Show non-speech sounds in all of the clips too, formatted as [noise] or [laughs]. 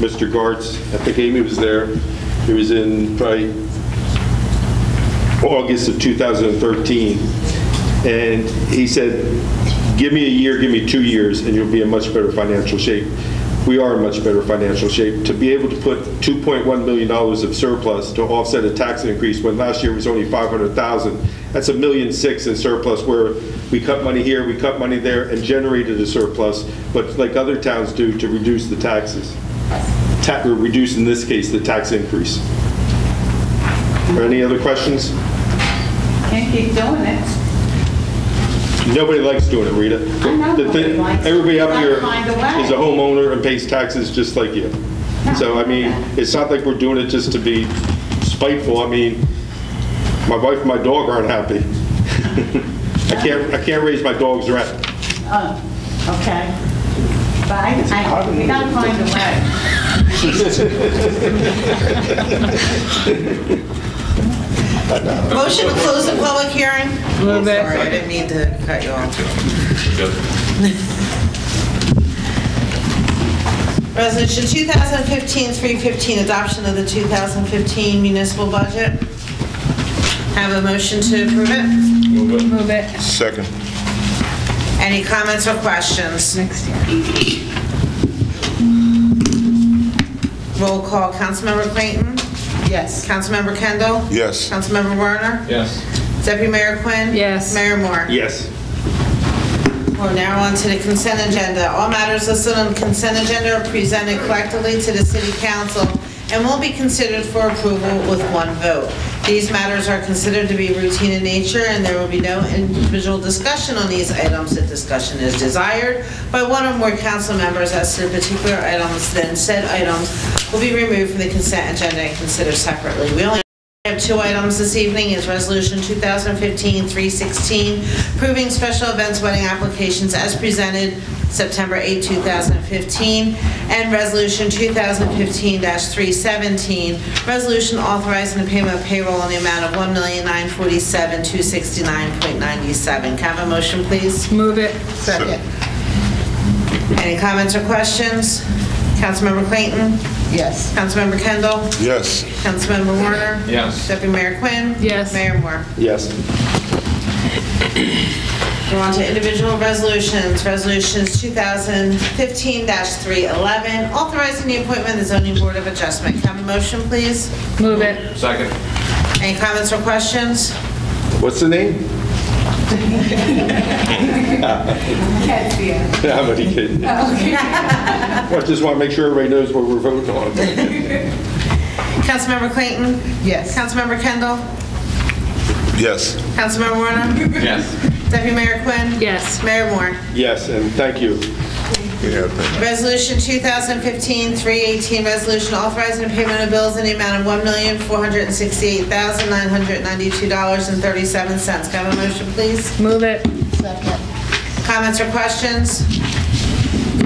Mr. Gartz at the game, he was there. It was in probably August of 2013. And he said, give me a year, give me two years, and you'll be in much better financial shape. We are in much better financial shape. To be able to put $2.1 million of surplus to offset a tax increase when last year was only 500,000, that's a million six in surplus where we cut money here, we cut money there, and generated a surplus, but like other towns do, to reduce the taxes. Ta- or Reduce, in this case, the tax increase. Are Any other questions? Can't keep doing it. Nobody likes doing it, Rita. I know The nobody thing- likes it. Everybody up Gotta here find a way. is a homeowner and pays taxes just like you. So, I mean, it's not like we're doing it just to be spiteful. I mean, my wife and my dog aren't happy. [laughs] I can't, I can't raise my dog's rent. Oh, okay. But I, I, we gotta find a way. Motion to close the public hearing? Move it. Sorry, I didn't mean to cut you off. [laughs] Resolution 2015-315, adoption of the 2015 municipal budget. Have a motion to approve it? Move it Second. Any comments or questions? next year. Roll call, Councilmember Clayton? Yes. Councilmember Kendall? Yes. Councilmember Werner? Yes. Deputy Mayor Quinn? Yes. Mayor Moore? Yes. We're now on to the consent agenda. All matters listed on the consent agenda are presented collectively to the city council and will be considered for approval with one vote. These matters are considered to be routine in nature, and there will be no individual discussion on these items if discussion is desired by one or more council members as to the particular items, then said items will be removed from the consent agenda and considered separately. We only we have two items this evening, is Resolution 2015-316, approving special events wedding applications as presented September 8, 2015, and Resolution 2015-317, resolution authorizing the payment of payroll in the amount of $1,947,269.97. Can I have a motion, please? Move it. Second. Any comments or questions? Councilmember Clayton? Yes. Councilmember Kendall? Yes. Councilmember Warner? Yes. Deputy Mayor Quinn? Yes. Mayor Moore? Yes. We're on to individual resolutions. Resolutions 2015-311, authorizing the appointment of the zoning board of adjustment. Can I have a motion, please? Move it. Second. Any comments or questions? What's the name? Can't see [laughs] it. No, I'm only kidding. Well, I just want to make sure everybody knows what we're voting on. Councilmember Clayton? Yes. Councilmember Kendall? Yes. Councilmember Warner? Yes. Deputy Mayor Quinn? Yes. Mayor Moore? Yes, and thank you. Yeah, thank Resolution 2015-318, resolution authorizing the payment of bills in the amount of $1,468,992.37. Can I have a motion, please? Move it. Comments or questions?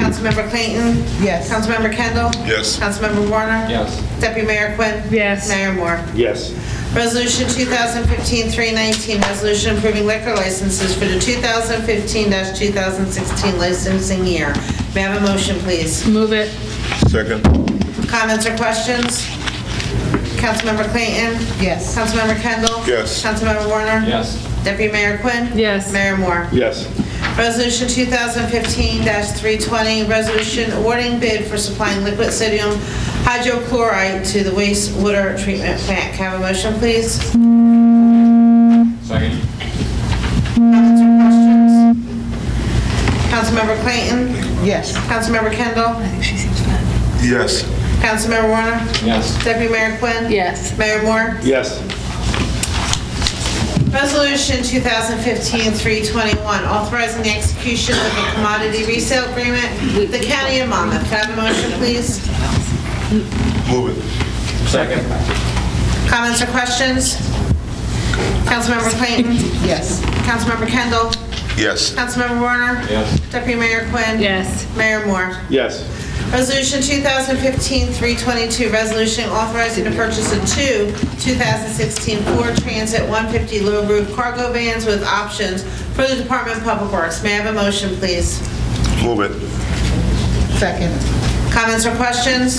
Councilmember Clayton? Yes. Councilmember Kendall? Yes. Councilmember Warner? Yes. Deputy Mayor Quinn? Yes. Mayor Moore? Yes. Resolution 2015-319, resolution approving liquor licenses for the 2015-2016 licensing year. May I have a motion, please? Move it. you. Second. Comments or questions? Councilmember Clayton? Yes. Councilmember Kendall? Yes. Councilmember Warner? Yes. Deputy Mayor Quinn? Yes. Mayor Moore? Yes. Resolution 2015-320, resolution awarding bid for supplying liquid sodium hydrochloride to the wastewater treatment plant. Can I have a motion, please? Second. Comments or questions? Councilmember Clayton? Yes. Councilmember Kendall? Yes. Councilmember Warner? Yes. Deputy Mayor Quinn? Yes. Mayor Moore? Yes. Resolution 2015-321, authorizing the execution of a commodity resale agreement with the county of Monmouth. Can I have a motion, please? Move it. Second. Comments or questions? Councilmember Clayton? Yes. Councilmember Kendall? Yes. Councilmember Warner? Yes. Deputy Mayor Quinn? Yes. Mayor Moore? Yes. Resolution 2015-322, resolution authorizing the purchase of two 2016 Ford Transit 150 low roof cargo vans with options for the Department of Public Works. May I have a motion, please? Move it. Second. Comments or questions?